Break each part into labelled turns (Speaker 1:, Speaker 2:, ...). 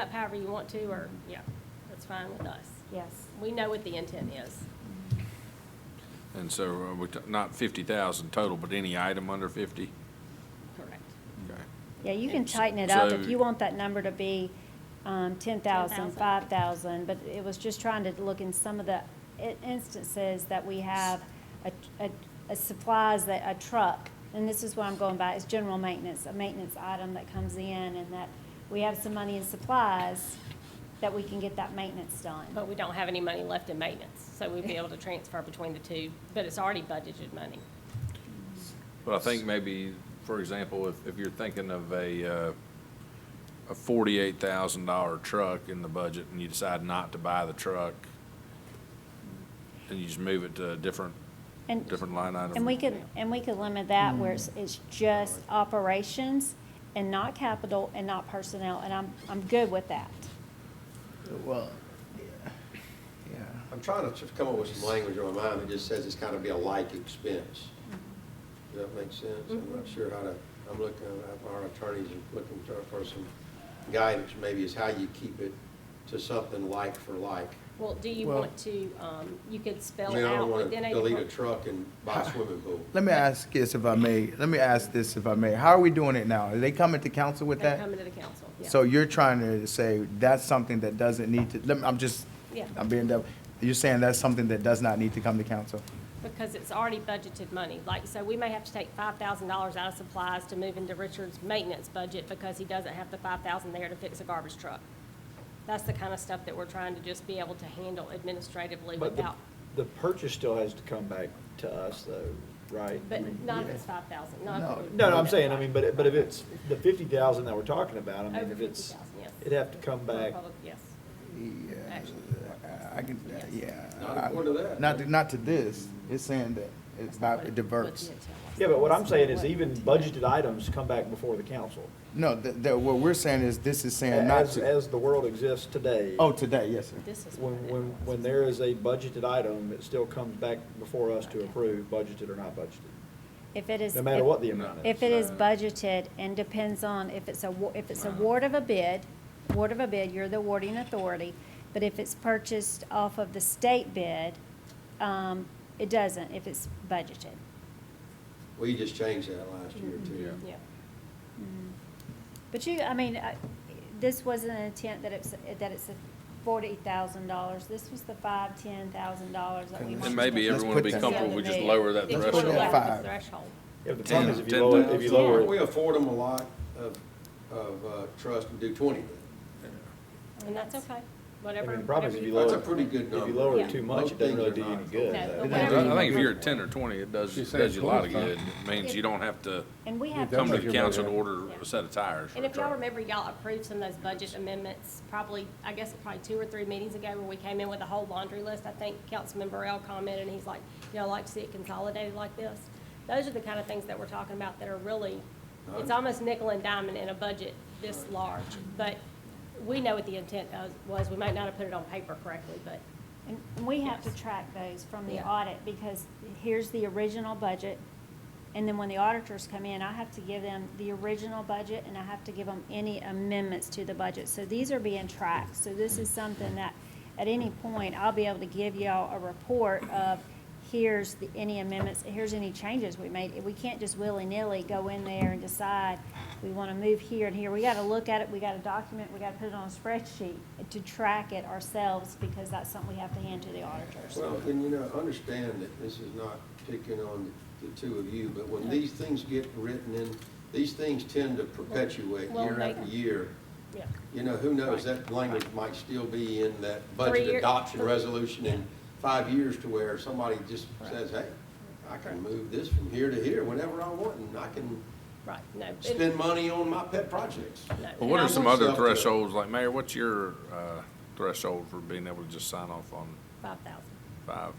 Speaker 1: up however you want to, or, yeah, that's fine with us.
Speaker 2: Yes.
Speaker 1: We know what the intent is.
Speaker 3: And so, uh, we, t- not fifty thousand total, but any item under fifty?
Speaker 1: Correct.
Speaker 3: Okay.
Speaker 2: Yeah, you can
Speaker 1: And
Speaker 2: tighten it up if
Speaker 3: so-
Speaker 2: you want that number to be um, 10,000,
Speaker 1: 10,000.
Speaker 2: 5,000, but it was just trying to look in some of the i- instances that we have a- a a supplies that a truck, and this is what I'm going by, is general maintenance, a maintenance item that comes in, and that we have some money in supplies that we can get that maintenance done.
Speaker 1: But we don't have any money left in maintenance, so we'd be able to transfer between the two, but it's already budgeted money.
Speaker 3: But I think maybe, for example, if, if you're thinking of a, uh, a forty-eight thousand dollar truck in the budget and you decide not to buy the truck, and you just move it to a different,
Speaker 2: And-
Speaker 3: different line item.
Speaker 2: And we could, and we could limit that where it's, it's just operations and not capital and not personnel, and I'm, I'm good with that.
Speaker 4: Well, yeah.
Speaker 5: I'm trying to just come up with some language in my mind that just says it's gotta be a like expense. Does that make sense? I'm
Speaker 1: Mm-hmm.
Speaker 5: not sure how to, I'm looking, our attorneys are looking for- for some guidance, maybe is how you keep it to something like for like.
Speaker 1: Well, do you
Speaker 4: Well-
Speaker 1: want to, um, you could spell
Speaker 5: I mean, I
Speaker 1: out
Speaker 5: don't wanna
Speaker 1: within a.
Speaker 5: delete a truck and buy a swimming pool.
Speaker 4: Let me ask this if I may, let me ask this if I may. How are we doing it now? Are they coming to council with
Speaker 1: They're
Speaker 4: that?
Speaker 1: coming to the council, yeah.
Speaker 4: So you're trying to say that's something that doesn't need to, let me, I'm just,
Speaker 1: Yeah.
Speaker 4: I'm being devil. You're saying that's something that does not need to come to council?
Speaker 1: Because it's already budgeted money. Like, so we may have to take five thousand dollars out of supplies to move into Richard's maintenance budget because he doesn't have the five thousand there to fix a garbage truck. That's the kind of stuff that we're trying to just be able to handle administratively
Speaker 6: But the,
Speaker 1: without,
Speaker 6: the purchase still has to come back to us though, right?
Speaker 1: but
Speaker 6: I mean,
Speaker 1: not if
Speaker 6: yeah.
Speaker 1: it's five thousand, not.
Speaker 4: No.
Speaker 6: No, no, I'm saying, I mean, but, it- but if it's the fifty thousand that we're talking about, I mean,
Speaker 1: Over
Speaker 6: if it's,
Speaker 1: 50,000, yes.
Speaker 6: it'd have to come back.
Speaker 1: Public- Yes.
Speaker 4: Yeah.
Speaker 1: Actually.
Speaker 4: I can, uh, yeah.
Speaker 5: Not according to that.
Speaker 4: Not, to- not to this. It's saying that
Speaker 1: What-
Speaker 4: it's about,
Speaker 1: what
Speaker 4: it
Speaker 1: the
Speaker 4: diverts.
Speaker 1: intent was.
Speaker 6: Yeah, but what I'm saying is even budgeted items come back before the council.
Speaker 4: No, the, the, what we're saying is this is saying not
Speaker 6: As,
Speaker 4: to.
Speaker 6: as the world exists today.
Speaker 4: Oh, today, yes, sir.
Speaker 1: This is what
Speaker 6: When,
Speaker 1: it
Speaker 6: when,
Speaker 1: was.
Speaker 6: when there is a budgeted item, it still comes back before us to approve, budgeted or not budgeted,
Speaker 2: If it is.
Speaker 6: no matter
Speaker 2: if-
Speaker 6: what the amount is.
Speaker 2: If it is budgeted and depends on if it's a, wa- if it's award of a bid, award of a bid, you're the awarding authority. But if it's purchased off of the state bid, um, it doesn't if it's budgeted.
Speaker 5: We just changed that last year too.
Speaker 1: Yeah.
Speaker 2: Mm. But you, I mean, I- this wasn't an intent that it's, that it's forty thousand dollars. This was the five, ten thousand dollars that we wanted.
Speaker 3: And maybe
Speaker 2: to-
Speaker 4: Let's
Speaker 3: everyone would
Speaker 4: put
Speaker 3: be
Speaker 4: that-
Speaker 3: comfortable, we just
Speaker 2: Yeah.
Speaker 3: lower that
Speaker 1: It's
Speaker 4: put it
Speaker 3: threshold.
Speaker 1: below
Speaker 4: at five.
Speaker 1: the Threshold.
Speaker 6: Yeah, but the problem is if you
Speaker 3: Ten-
Speaker 6: lower,
Speaker 3: ten
Speaker 6: if you lower
Speaker 5: We
Speaker 6: it,
Speaker 5: afford them a lot of, of uh, trust and do twenty.
Speaker 1: And that's okay,
Speaker 6: I
Speaker 1: whatever.
Speaker 6: mean, the problem
Speaker 1: whatever
Speaker 6: is if
Speaker 1: you
Speaker 6: you
Speaker 1: feel.
Speaker 6: lower.
Speaker 5: That's a pretty good
Speaker 6: If you
Speaker 5: number.
Speaker 6: lower
Speaker 1: Yeah.
Speaker 6: it too much,
Speaker 5: Most
Speaker 6: it doesn't really
Speaker 5: things
Speaker 6: do
Speaker 5: are
Speaker 6: you any
Speaker 5: not.
Speaker 6: good.
Speaker 1: No, but
Speaker 3: I
Speaker 6: though.
Speaker 1: whatever you
Speaker 3: think
Speaker 1: do.
Speaker 3: if you're at ten or twenty, it does,
Speaker 7: She's saying
Speaker 3: does you a lot of
Speaker 7: 25.
Speaker 3: good. It means you don't have to
Speaker 2: And we have.
Speaker 3: come
Speaker 7: That's
Speaker 3: to the
Speaker 7: what you're
Speaker 3: council to
Speaker 7: right at.
Speaker 3: order a set of tires for
Speaker 1: And
Speaker 3: a
Speaker 1: if y'all
Speaker 3: truck.
Speaker 1: remember, y'all approved some of those budget amendments, probably, I guess, probably two or three meetings ago, where we came in with a whole laundry list. I think Councilman Burrell commented, and he's like, y'all like to see it consolidated like this? Those are the kind of things that we're talking about that are really, it's almost nickel and diamond in a budget this large. But we know what the intent was- was. We might not have put it on paper correctly, but
Speaker 2: And we have to track those from the
Speaker 1: Yeah.
Speaker 2: audit, because here's the original budget, and then when the auditors come in, I have to give them the original budget, and I have to give them any amendments to the budget. So these are being tracked, so this is something that, at any point, I'll be able to give y'all a report of, here's the, any amendments, here's any changes we made. We can't just willy-nilly go in there and decide, we wanna move here and here. We gotta look at it, we gotta document, we gotta put it on a spreadsheet to track it ourselves, because that's something we have to hand to the auditors.
Speaker 5: Well, and you know, understand that this is not picking on the two of you, but when these things get written in, these things tend to perpetuate
Speaker 1: Well,
Speaker 5: year
Speaker 1: they-
Speaker 5: after year.
Speaker 1: yeah.
Speaker 5: You know, who knows, that language might still be in that
Speaker 1: Three
Speaker 5: budget
Speaker 1: year-
Speaker 5: adoption
Speaker 1: three-
Speaker 5: resolution in five years to where somebody just says, hey, I can move this from here to here whenever I want, and I can
Speaker 1: Right, no. and-
Speaker 5: spend money on my pet projects.
Speaker 1: no,
Speaker 3: Well,
Speaker 1: and
Speaker 3: what
Speaker 1: I
Speaker 3: are some
Speaker 1: want
Speaker 3: other
Speaker 5: yourself to-
Speaker 3: thresholds, like Mayor, what's your, uh, threshold for being able to just sign off on
Speaker 1: Five thousand.
Speaker 3: five?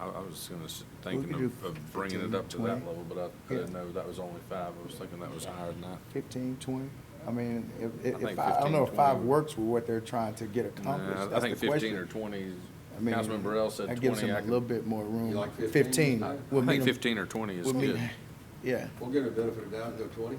Speaker 3: I, I was gonna, s- thinking
Speaker 4: could
Speaker 3: of,
Speaker 4: do
Speaker 3: of bringing it up to
Speaker 4: 15,
Speaker 3: that
Speaker 4: 20.
Speaker 3: level, but I- I didn't know that was only five, I was thinking that was higher than that.
Speaker 4: Fifteen, twenty? I mean, if,
Speaker 3: I
Speaker 4: if,
Speaker 3: think
Speaker 4: if I I don't know if
Speaker 3: 15,
Speaker 4: five
Speaker 3: 20.
Speaker 4: works with what they're trying to get accomplished,
Speaker 3: Nah, I
Speaker 4: that's
Speaker 3: think
Speaker 4: the
Speaker 3: fifteen
Speaker 4: question.
Speaker 3: or twenty,
Speaker 4: I mean,
Speaker 3: Councilman Burrell said twenty.
Speaker 4: That gives them
Speaker 3: I
Speaker 4: a
Speaker 3: could-
Speaker 4: little bit more
Speaker 5: You
Speaker 4: room.
Speaker 5: like 15?
Speaker 4: Fifteen.
Speaker 5: I- I
Speaker 4: would
Speaker 3: I think
Speaker 4: meet 'em-
Speaker 3: fifteen or twenty is
Speaker 4: would meet-
Speaker 3: good.
Speaker 4: Yeah.
Speaker 5: We'll give it a benefit of doubt and go twenty.